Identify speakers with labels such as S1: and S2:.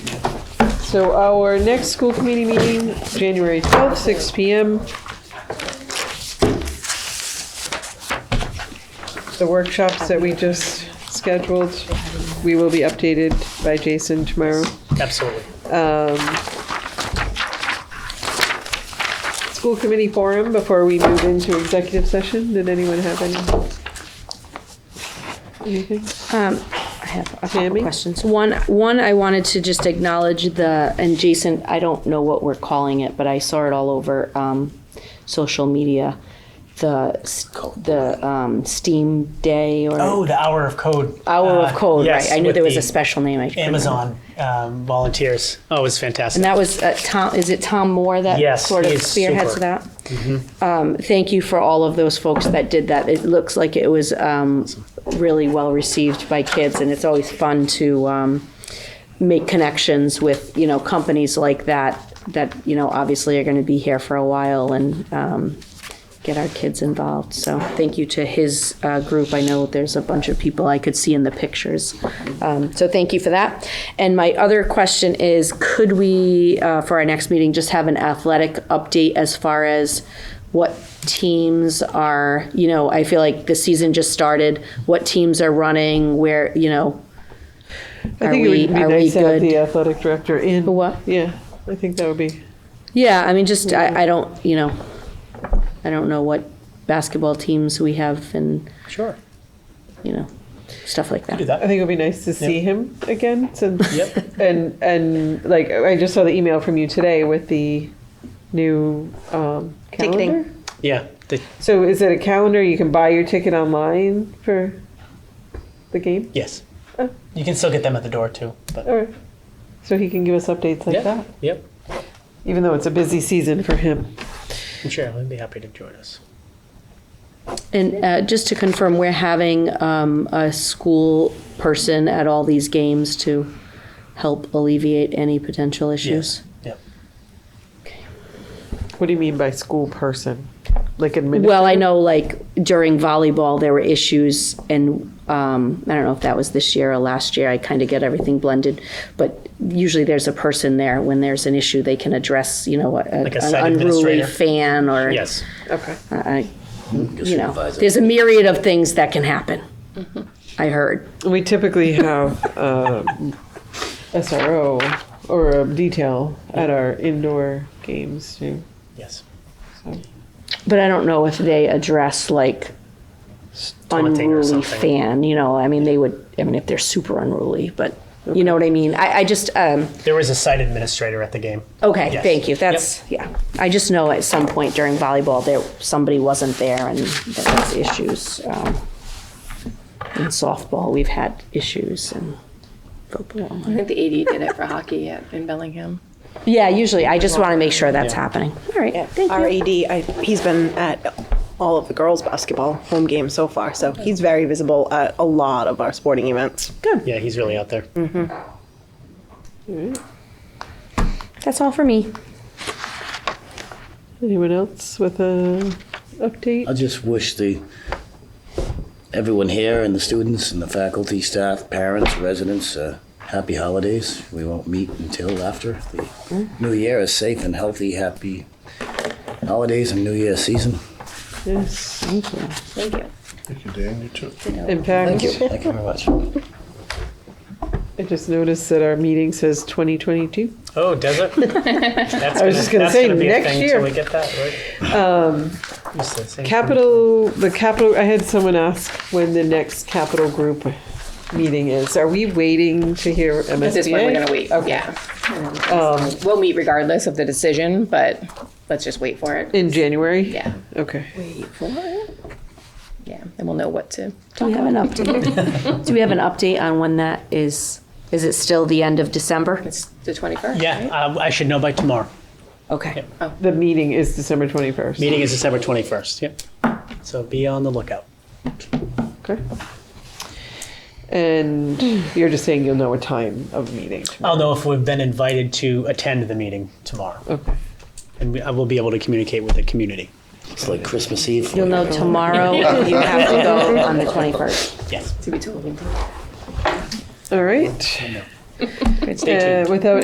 S1: So our next school committee meeting, January 12th, 6 PM. The workshops that we just scheduled, we will be updated by Jason tomorrow.
S2: Absolutely.
S1: School committee forum before we move into executive session. Did anyone have any? Anything?
S3: I have a couple
S1: Tammy?
S3: questions. One, one, I wanted to just acknowledge the, and Jason, I don't know what we're calling it, but I saw it all over um, social media. The s- the um, STEAM Day or
S2: Oh, the hour of code.
S3: Hour of
S2: Uh,
S3: Code,
S2: yes,
S3: right? I knew
S2: with
S3: there was
S2: the
S3: a special name. I couldn't remember.
S2: Amazon um, volunteers. Oh, it was fantastic.
S3: And that was uh, Tom. Is it Tom Moore that
S2: Yes,
S3: sort of
S2: he is
S3: spearheads
S2: super.
S3: that? Um, thank you for all of those folks that did that. It looks like it was um, really well received by kids, and it's always fun to um, make connections with you know companies like that that you know obviously are going to be here for a while and. Um, Get our kids involved. So, thank you to his uh, group. I know there's a bunch of people I could see in the pictures. Um, so, thank you for that. And my other question is could we, uh, for our next meeting, just have an athletic update as far as what teams are, you know, I feel like the season just started, what teams are running, where, you know,
S1: I
S3: Are
S1: think it
S3: we-
S1: would be
S3: are we
S1: nice to have
S3: good?
S1: the athletic director in.
S3: what?
S1: Yeah, I think that would be,
S3: Yeah, I mean, just, I, I don't, you know, I don't know what basketball teams we have and,
S2: Sure.
S3: you know, stuff like
S2: Do
S3: that.
S1: I
S2: that.
S1: think it would be nice to see him again since,
S2: Yep.
S1: and, and like, I just saw the email from you today with the new um,
S3: Ticketing.
S1: calendar.
S2: Yeah. The,
S1: So is it a calendar? You can buy your ticket online for the game?
S2: yes.
S1: Oh.
S2: You can still get them at the door too. But
S1: All right. So he can give us updates Oh, like
S2: yeah.
S1: that,
S2: Yep.
S1: even though it's a busy season for him.
S2: I'm sure I'd be happy to join us.
S3: And uh, just to confirm, we're having um, a school person at all these games to help alleviate any potential issues.
S2: Yep.
S1: What do you mean by school person? Like administrator?
S3: Well, I know like during volleyball, there were issues and um, I don't know if that was this year or last year. I kind of get everything blended, but usually there's a person there when there's an issue they can address, you know, a,
S2: Like a
S3: an
S2: site
S3: unruly
S2: administrator.
S3: fan or,
S2: Yes.
S1: Okay.
S3: I- you know, there's a myriad of things that can happen. I heard.
S1: We typically have uh, SRO or a detail at our indoor games too.
S2: Yes.
S3: But I don't know if they address like
S2: Taunting or
S3: unruly
S2: something.
S3: fan, you know, I mean, they would, I mean, if they're super unruly, but you know what I mean? I, I just, um,
S2: There was a site administrator at the game.
S3: okay,
S2: Yes.
S3: thank you. That's, yeah. I just know at some point during volleyball, there, somebody wasn't there and there was issues. Um, in softball, we've had issues and football.
S4: I think the AD did it for hockey at, in Bellingham.
S3: Yeah, usually, I just want to make sure that's happening. All right, thank
S5: Our
S3: you.
S5: AD, E I, he's been at all of the girls' basketball home games so far, so he's very visible at a lot of our sporting events. Good.
S2: Yeah, he's really out there.
S3: That's all for me.
S1: Anyone else with a update?
S6: I just wish the, everyone here and the students and the faculty, staff, parents, residents, uh, happy holidays. We won't meet until after the new year. A safe and healthy, happy holidays and new year season.
S1: Yes.
S3: Thank you.
S4: Thank you.
S7: Thank you, Dan. You too.
S1: In fact,
S6: Thank you. Thank you very much.
S1: I just noticed that our meeting says 2022.
S2: Oh, does it? That's
S1: I was just gonna
S2: that's
S1: say,
S2: be a
S1: next
S2: thing till
S1: year.
S2: we get that right. Um,
S1: Capital, the capital, I had someone ask when the next capital group meeting is. Are we waiting to hear MSBA?
S4: At this point, we're gonna wait.
S1: Okay.
S4: Yeah. We'll meet regardless of the decision, but let's just wait for it.
S1: In January?
S4: Yeah.
S1: Okay.
S4: Wait for it. Yeah, and we'll know what to.
S3: Do we have an update? Do we have an update on when that is? Is it still the end of December?
S4: It's the 21st.
S2: Yeah, um, I should know by tomorrow.
S3: Okay.
S1: The meeting is December 21st.
S2: Meeting is December 21st. Yep. So be on the lookout.
S1: Okay. And you're just saying you'll know a time of meeting. tomorrow.
S2: I'll know if we've been invited to attend the meeting tomorrow.
S1: Okay.
S2: And we, I will be able to communicate with the community.
S6: It's like Christmas Eve.
S3: You'll know tomorrow if you have to go on the 21st.
S2: Yes.
S4: To be told.
S1: All right.
S2: Stay tuned.
S1: Uh, Without